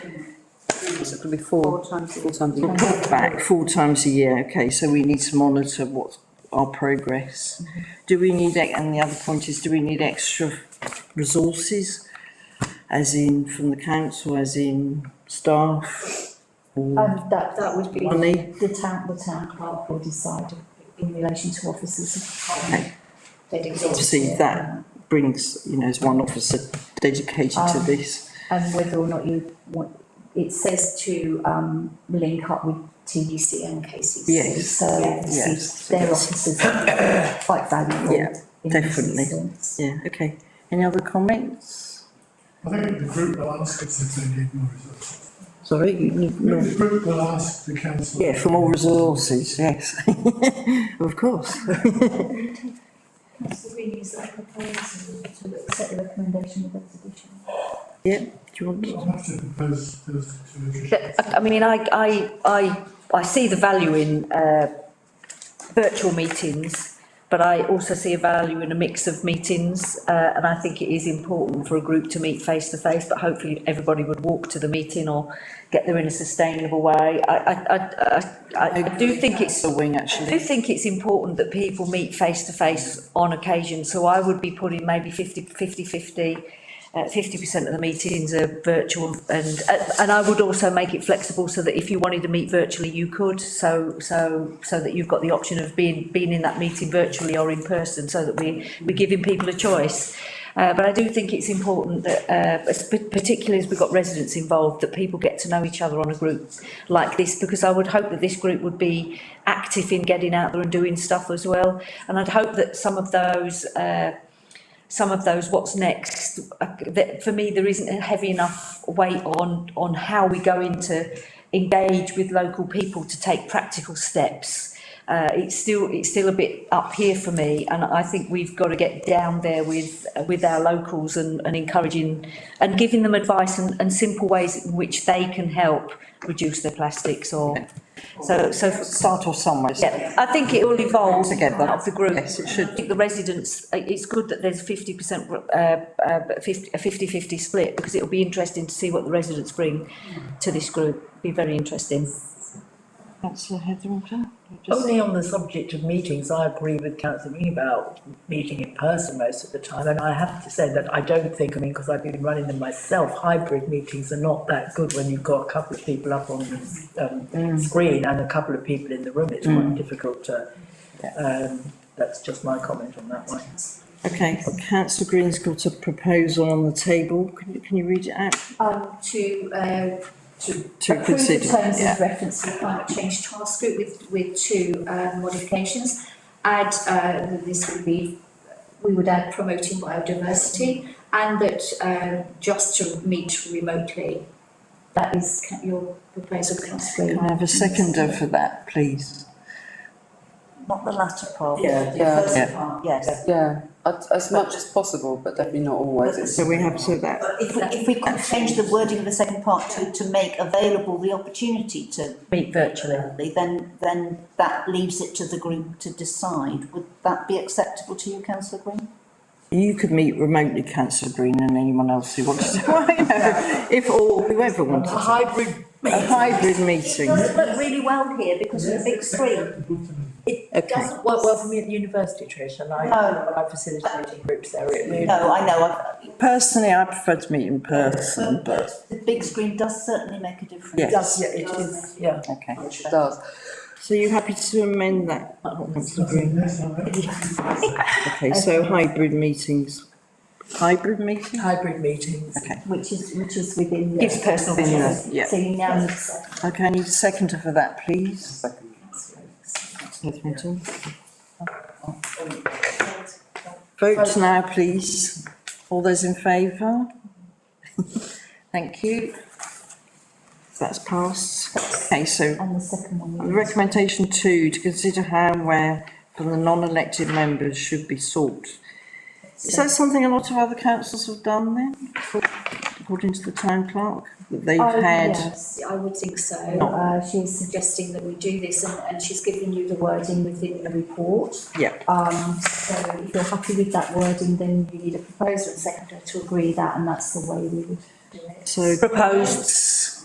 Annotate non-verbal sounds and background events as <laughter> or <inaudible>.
times, it'll be four, Four times a four times a year. Brought back four times a year, okay, so we need to monitor what our progress. Do we need, ex- and the other point is, do we need extra resources? As in from the council, as in staff, Um, that, that would be money? the town, the town clerk will decide in relation to officers of the Okay. department. They'd exhaust Obviously, it. that brings, you know, as one officer dedicated to Um, this. And whether or not you want, it says to, um, link up with TDC and KCC. Yes, So yes. their officers are quite valuable. Yeah, in this definitely. instance. Yeah, okay. Any other comments? I think the group will ask us if they need more resources. Sorry, you need I more. think The group will ask the council. Yeah, for more resources, yes. <laughs> Of course. Councillor Green, is that proposal to accept the recommendation of exhibition? Yeah, do you want to? I'll have to propose those two additions. I, I mean, I, I, I, I see the value in, uh, virtual meetings, but I also see a value in a mix of meetings, uh, and I think it is important for a group to meet face to face, but hopefully everybody would walk to the meeting or get there in a sustainable way. I, I, I, I, I do think it's a wing, I actually. do think it's important that people meet face to face on occasion, so I would be putting maybe fifty, fifty, fifty. Uh, fifty percent of the meetings are virtual and, uh, and I would also make it flexible so that if you wanted to meet virtually, you could. So, so, so that you've got the option of being, being in that meeting virtually or in person, so that we, we're giving people a choice. Uh, but I do think it's important that, uh, as- pa- particularly as we've got residents involved, that people get to know each other on a group like this, because I would hope that this group would be active in getting out there and doing stuff as well. And I'd hope that some of those, uh, some of those what's next, uh, that for me, there isn't a heavy enough weight on, on how we go into engage with local people to take practical steps. Uh, it's still, it's still a bit up here for me, and I think we've got to get down there with, with our locals and, and encouraging and giving them advice and, and simple ways in which they can help reduce their plastics or, so, so. Start off somewhere. Yeah, I think it will evolve Together. out of the group. Yes, it should. I think the residents, i- it's good that there's fifty percent, uh, uh, fifty, a fifty-fifty split, because it'll be interesting to see what the residents bring to this group, be very interesting. Councillor Hetherington? Only on the subject of meetings, I agree with councillor Green about meeting in person most of the time, and I have to say that I don't think, I mean, because I've been running them myself, hybrid meetings are not that good when you've got a couple of people up on the um screen and a couple of people in the room, it's quite difficult to. Um, that's just my comment on that one. Okay, councillor Green's got a proposal on the table. Can you, can you read it out? Um, to, uh, To approve the consider, terms yeah. of reference to the climate change task group with, with two, uh, modifications. Add, uh, that this would be, we would add promoting biodiversity and that, uh, just to meet remotely. That is ca- your proposal, councillor Green. Can I have a seconder for that, please? Not the latter part. Yeah, yeah, yes. yeah, as, as much as possible, but definitely not always. It's- So we have, so that, If we, if we could change the wording of the second part to, to make available the opportunity to, Meet virtually. then, then that leaves it to the group to decide. Would that be acceptable to you, councillor Green? you could meet remotely councillor Green and anyone else who wants to, <laughs> Well, you know, if, or whoever A wanted. to. hybrid A hybrid meeting, does look really well here because of the big screen. okay. doesn't work well for me at the university, Trish, and I, No. I'm facilitating groups there, it really. No, Oh, I know, I- Personally, I prefer to meet in person, but, the big screen does certainly make a difference. Yes. Yeah, it is, yeah. okay. It does. So you happy to amend that? councillor Green? Yes, I know. Okay, so hybrid meetings, hybrid meeting? hybrid meetings. Which is, which is within. the- Gives personal Within the- yeah. So you now need to. Okay, I need a seconder for that, please. Second. Hetherington. Vote now, please. All those in favour? <laughs> Thank you. That's passed. Okay, so And the second one. And Recommendation two, to consider how and where for the non-elected members should be sought. Is that something a lot of other councils have done then, according to the town clerk, that they've Oh, had? yes, I would think so. No. Uh, she's suggesting that we do this and, and she's given you the wording within the report. Yep. Um, so if you're happy with that wording, then you need a proposer and seconder to agree that and that's the way we would do it. So Proposed